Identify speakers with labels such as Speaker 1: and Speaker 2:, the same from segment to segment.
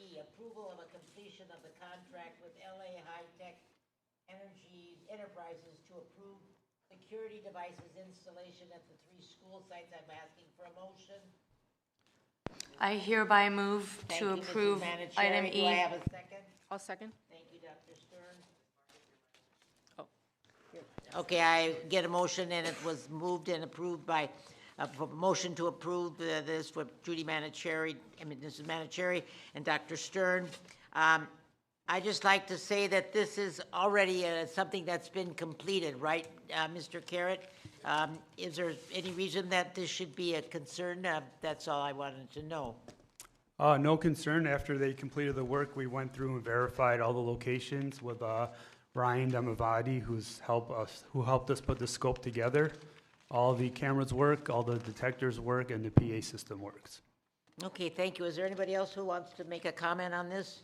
Speaker 1: E, approval of a completion of the contract with LA High Tech Energy Enterprises to approve security devices installation at the three school sites. I'm asking for a motion.
Speaker 2: I hereby move
Speaker 1: Thank
Speaker 2: to
Speaker 1: you, Mrs.
Speaker 2: approve item
Speaker 1: Manicherry. Do I
Speaker 2: E.
Speaker 1: have a second?
Speaker 3: I'll second.
Speaker 1: Thank you, Dr. Stern.
Speaker 3: Oh.
Speaker 1: Oh. Okay, I get a motion, and it was moved and approved by, a p- motion to approve uh, this for Judy Manicherry, I mean, Mrs. Manicherry and Dr. Stern. Um, i just like to say that this is already uh, something that's been completed, right, uh, Mr. Carrot? Um, Is there any reason that this should be a concern? Uh, That's all I wanted to know.
Speaker 4: Uh, no concern. After they completed the work, we went through and verified all the locations with, uh, Ryan Demavati, who's helped us, who helped us put the scope together. All the cameras work, all the detectors work, and the PA system works.
Speaker 1: Okay, thank you. Is there anybody else who wants to make a comment on this?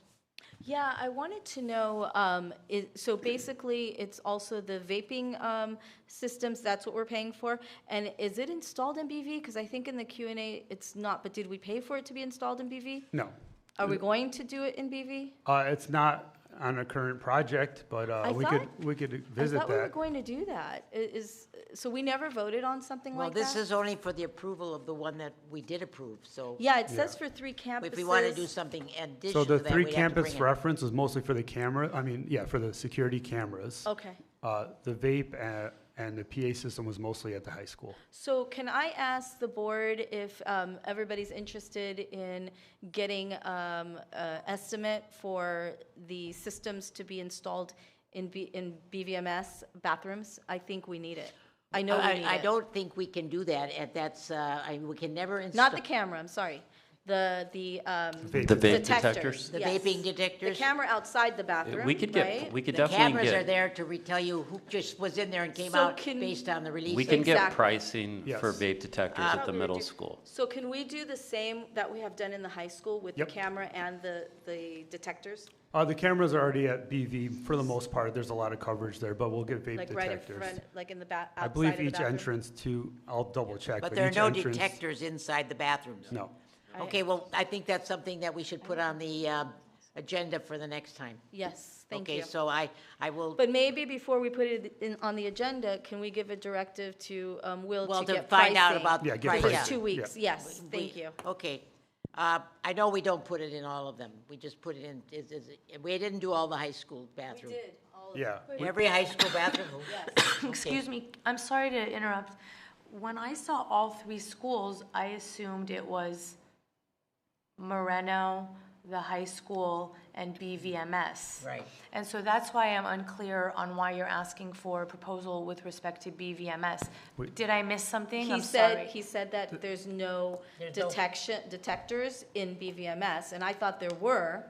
Speaker 2: Yeah, I wanted to know, um, is, so basically, it's also the vaping, um, systems, that's what we're paying for? And is it installed in BV? Because I think in the Q and A, it's not, but did we pay for it to be installed in BV?
Speaker 4: No,
Speaker 2: Are we going to do it in BV?
Speaker 4: uh, it's not on a current project, but,
Speaker 2: I
Speaker 4: uh, we could,
Speaker 2: thought-
Speaker 4: we could
Speaker 2: I
Speaker 4: visit
Speaker 2: thought we were
Speaker 4: that.
Speaker 2: going to do that. I- Is, so we never voted on something
Speaker 1: Well,
Speaker 2: like that?
Speaker 1: this is only for the approval of the one that we did approve, so
Speaker 2: Yeah, it says for three campuses.
Speaker 1: if we want to do something in
Speaker 4: So
Speaker 1: addition to
Speaker 4: the
Speaker 1: that, we have
Speaker 4: three
Speaker 1: to bring
Speaker 4: campus
Speaker 1: it.
Speaker 4: reference was mostly for the camera, I mean, yeah, for the security cameras.
Speaker 2: Okay.
Speaker 4: Uh, the vape and, and the PA system was mostly at the high school.
Speaker 2: So can I ask the board if um, everybody's interested in getting um, a estimate for the systems to be installed in B- in BVMS bathrooms? I think we need it. I know we need
Speaker 1: I, I
Speaker 2: it.
Speaker 1: don't think we can do that, and that's, uh, I, we can never install.
Speaker 2: Not the camera, I'm sorry. The, the um,
Speaker 4: Vape.
Speaker 5: The vape
Speaker 2: detectors.
Speaker 5: detectors? Uh,
Speaker 1: The
Speaker 2: yes.
Speaker 1: vaping detectors?
Speaker 2: The camera outside the bathroom,
Speaker 5: We could
Speaker 2: right?
Speaker 5: get, we could
Speaker 1: The
Speaker 5: definitely
Speaker 1: cameras are
Speaker 5: get,
Speaker 1: there to re- tell you who just was in there and came
Speaker 2: So
Speaker 1: out
Speaker 2: can-
Speaker 1: based on the release.
Speaker 5: we can get
Speaker 2: Exactly.
Speaker 5: pricing for
Speaker 4: Yes.
Speaker 5: vape detectors at the
Speaker 2: Probably
Speaker 5: middle
Speaker 2: do-
Speaker 5: school.
Speaker 2: So can we do the same that we have done in the high school with the
Speaker 4: Yep.
Speaker 2: camera and the, the detectors?
Speaker 4: Uh, the cameras are already at BV for the most part. There's a lot of coverage there, but we'll get vape
Speaker 2: Like right in front,
Speaker 4: detectors.
Speaker 2: like in the ba,
Speaker 4: I
Speaker 2: outside of the
Speaker 4: believe
Speaker 2: bathroom?
Speaker 4: each entrance to, I'll double check.
Speaker 1: But there are
Speaker 4: each
Speaker 1: no
Speaker 4: entrance-
Speaker 1: detectors inside the bathrooms.
Speaker 4: No.
Speaker 1: Okay, well, I think that's something that we should put on the, uh, agenda for the next time.
Speaker 2: Yes, thank you.
Speaker 1: Okay, so I, I will,
Speaker 2: But maybe before we put it in, on the agenda, can we give a directive to um, Will
Speaker 1: well,
Speaker 2: to
Speaker 1: to
Speaker 2: get
Speaker 1: find out
Speaker 2: pricing?
Speaker 1: about.
Speaker 4: Yeah, get
Speaker 1: price,
Speaker 2: For
Speaker 4: pricing.
Speaker 2: two weeks, yes,
Speaker 1: We-
Speaker 2: thank you.
Speaker 1: Okay. Uh, I know we don't put it in all of them. We just put it in, is, is, we didn't do all the high school bathroom.
Speaker 4: Yeah.
Speaker 1: Every high school bathroom?
Speaker 6: Excuse me, I'm sorry to interrupt. When I saw all three schools, I assumed it was Moreno, the high school, and BVMS.
Speaker 1: Right.
Speaker 6: And so that's why I'm unclear on why you're asking for a proposal with respect to BVMS.
Speaker 4: Wait.
Speaker 6: Did I miss something?
Speaker 2: He
Speaker 6: I'm
Speaker 2: said,
Speaker 6: sorry.
Speaker 2: he said that there's no
Speaker 1: There's no-
Speaker 2: detection, detectors in BVMS, and I thought there were,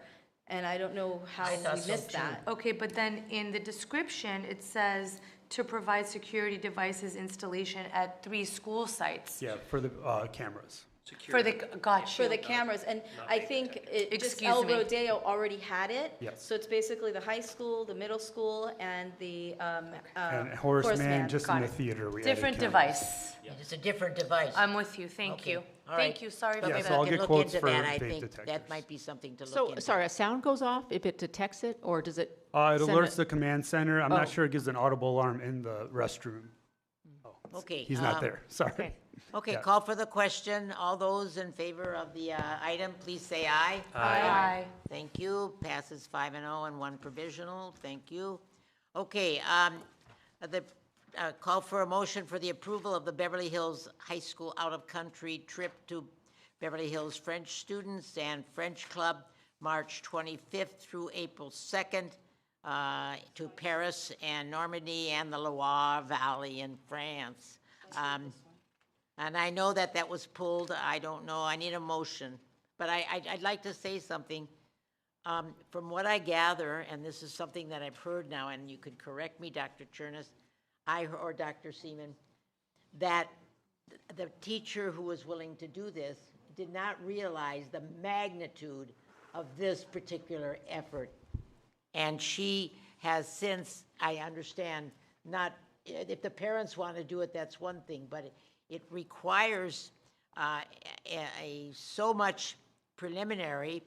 Speaker 2: and I don't know how
Speaker 1: I thought
Speaker 2: we
Speaker 1: so
Speaker 2: missed
Speaker 1: too.
Speaker 2: that.
Speaker 6: Okay, but then in the description, it says to provide security devices installation at three school sites.
Speaker 4: Yeah, for the, uh, cameras.
Speaker 6: For the, got you.
Speaker 2: For the cameras, and I think it, just
Speaker 6: Excuse
Speaker 2: El
Speaker 6: me.
Speaker 2: Rodeo already had it.
Speaker 4: Yes.
Speaker 2: So it's basically the high school, the middle school, and the, um, uh,
Speaker 4: And Horace Mann, just in
Speaker 6: got
Speaker 4: the
Speaker 6: it.
Speaker 4: theater. we added
Speaker 6: Different
Speaker 4: cameras.
Speaker 6: device.
Speaker 1: It's a different device.
Speaker 6: I'm with you, thank
Speaker 1: Okay,
Speaker 6: you.
Speaker 1: all right.
Speaker 6: Thank you, sorry for
Speaker 1: But
Speaker 4: Yeah,
Speaker 1: we
Speaker 4: so
Speaker 6: that.
Speaker 4: I'll
Speaker 1: can
Speaker 4: get
Speaker 1: look
Speaker 4: quotes
Speaker 1: into
Speaker 4: for
Speaker 1: that. I
Speaker 4: vape
Speaker 1: think That
Speaker 4: detectors.
Speaker 1: might be something to look
Speaker 3: So,
Speaker 1: into.
Speaker 3: sorry, a sound goes off if it detects it, or does it?
Speaker 4: Uh, it
Speaker 3: send
Speaker 4: alerts the command center. I'm
Speaker 3: Oh.
Speaker 4: not sure it gives an audible alarm in the restroom.
Speaker 1: Okay.
Speaker 4: He's not
Speaker 1: um,
Speaker 4: there, sorry.
Speaker 1: Okay,
Speaker 4: Yeah.
Speaker 1: call for the question. All those in favor of the uh, item, please say aye.
Speaker 6: Aye.
Speaker 1: Thank you. Passes five and oh and one provisional. Thank you. Okay, um, the, uh, call for a motion for the approval of the Beverly Hills High School out-of-country trip to Beverly Hills French students and French Club, March twenty-fifth through April second, uh, to Paris and Normandy and the Loire Valley in France. Um, and I know that that was pulled, I don't know, I need a motion. But I, I'd- I'd like to say something. Um, From what I gather, and this is something that I've heard now, and you could correct me, Dr. Chernus, I, or Dr. Seaman, that th- the teacher who was willing to do this did not realize the magnitude of this particular effort. And she has since, I understand, not, if the parents want to do it, that's one thing, but it requires uh, a, a, so much preliminary